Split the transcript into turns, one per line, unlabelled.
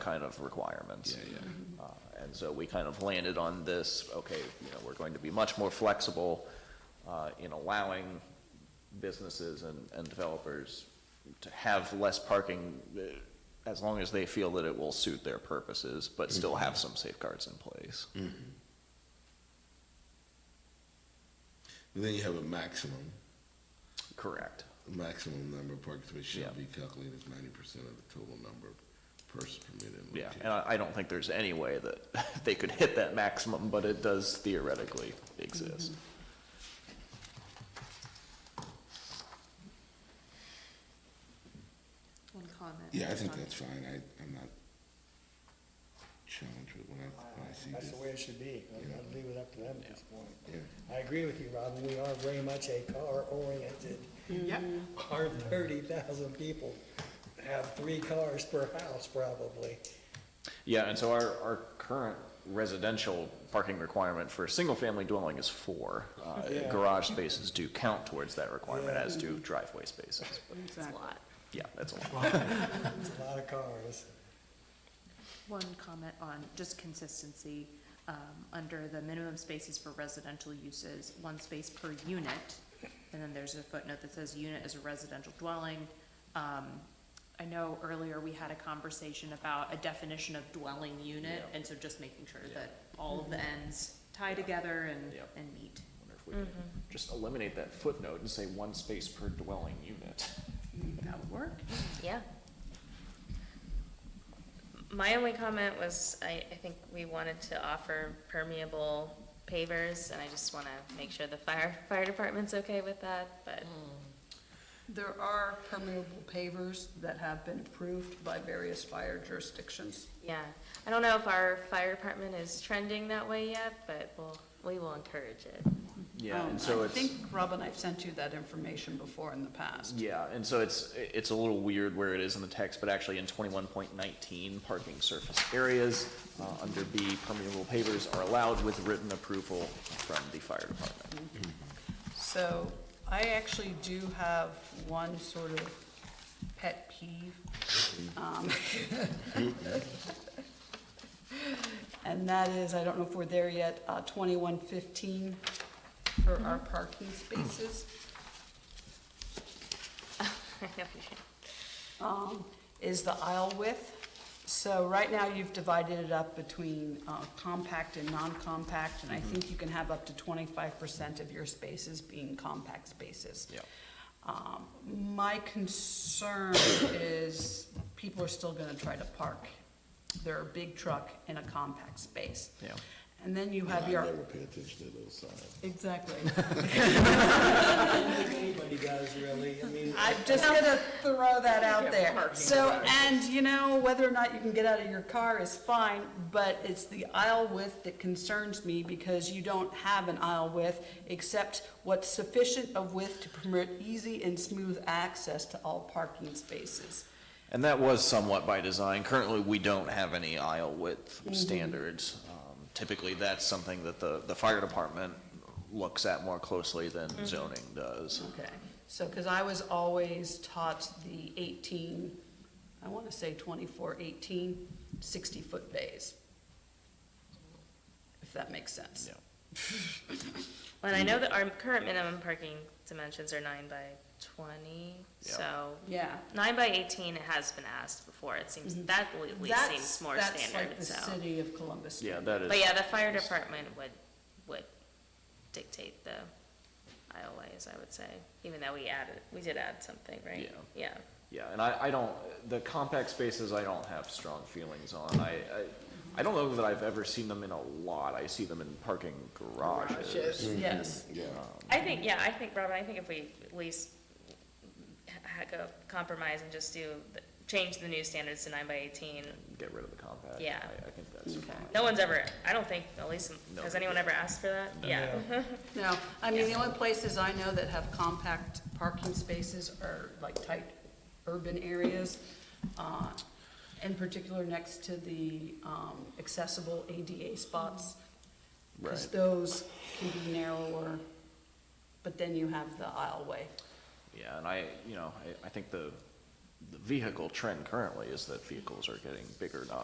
kind of requirements.
Yeah,
yeah. And so we kind of landed on this, okay, you know, we're going to be much more flexible uh, in allowing businesses and, and developers to have less parking uh, as long as they feel that it will suit their purposes, but still have some safeguards in place.
Then you have a maximum,
Correct.
a maximum number of parking spaces
Yeah.
should be calculated as ninety percent of the total number of persons permitted. in
Yeah,
location.
and I, I don't think there's any way that they could hit that maximum, but it does theoretically exist.
One comment.
Yeah, I think
on-
that's fine. I, I'm not challenged with when I, when I see
That's
this.
the way it should be. I- I'd leave it up to them at this point.
Yeah.
I agree with you, Robin. We are very much a car-oriented.
Yep,
Our thirty thousand people have three cars per house probably.
Yeah, and so our, our current residential parking requirement for a single-family dwelling is four. Uh,
Yeah.
Garage spaces do count towards that requirement,
Yeah.
as do driveway spaces, but
it's a lot.
yeah, that's a lot.
It's a lot of cars.
One comment on just consistency, um, under the minimum spaces for residential uses, one space per unit. And then there's a footnote that says unit is a residential dwelling. Um, I know earlier we had a conversation about a definition of dwelling unit, and so just making sure that all of the ends tie together and,
Yep.
and meet.
Wonder if we could
Mm-hmm.
Just eliminate that footnote and say one space per dwelling unit.
That would work.
Yeah. My only comment was, I, I think we wanted to offer permeable pavers, and I just wanna make sure the fire, fire department's okay with that, but,
Mm-hmm. There are permeable pavers that have been approved by various fire jurisdictions.
yeah. I don't know if our fire department is trending that way yet, but we'll, we will encourage it.
Oh,
Yeah,
Um,
and so it's.
I think, Robin, I've sent you that information before in the past.
Yeah, and so it's, it's a little weird where it is in the text, but actually in twenty-one point nineteen, parking surface areas, uh, under B, permeable pavers are allowed with written approval from the fire department.
So I actually do have one sort of pet peeve. um, And that is, I don't know if we're there yet, uh, 2115 for our parking spaces. um, is the aisle width. So right now, you've divided it up between uh, compact and non-compact,
Mm-hmm.
and I think you can have up to twenty-five percent of your spaces being compact spaces.
Yeah.
Um, My concern is people are still gonna try to park their big truck in a compact space.
Yeah.
And then you have
I
your,
never pay attention to those signs.
exactly.
I don't think anybody does really. I mean,
I'm just gonna throw that out there.
parking
So, and you know, whether or not you can get out of your car is fine, but it's the aisle width that concerns me because you don't have an aisle width except what's sufficient of width to permit easy and smooth access to all parking spaces.
And that was somewhat by design. Currently, we don't have any aisle width standards. Um, Typically, that's something that the, the fire department looks at more closely than zoning does.
Okay. So, because I was always taught the eighteen, I want to say 24, 18, 60 foot bays. If that makes sense.
Yeah.
Well, I know that our current minimum parking dimensions are nine by twenty,
Yeah.
so.
Yeah.
Nine by eighteen, it has been asked before, it seems, that at least
Mm-hmm. That's-
seems more
that's
standard,
like the
so.
city of Columbus.
Yeah, that is.
But yeah, the fire department would, would dictate the aisleways, I would say, even though we added, we did add something, right?
Yeah.
Yeah.
Yeah, and I, I don't, the compact spaces I don't have strong feelings on. I, I, I don't know that I've ever seen them in a lot. I see them in parking garages.
Hmm. Yes.
Yeah.
I think, yeah, I think, Robin, I think if we at least ha- go compromise and just do, the- change the new standards to nine by eighteen,
Get rid of the compact.
Yeah.
I, I think that's
Okay.
fine.
no one's ever, I don't think, at least,
No.
has anyone ever asked for that? Yeah.
No, I mean, the only places I know that have compact parking spaces are like tight urban areas. uh, In particular, next to the um, accessible ADA spots. Because
Right.
those can be narrower, but then you have the aisleway.
Yeah, and I, you know, I, I think the, the vehicle trend currently is that vehicles are getting bigger, not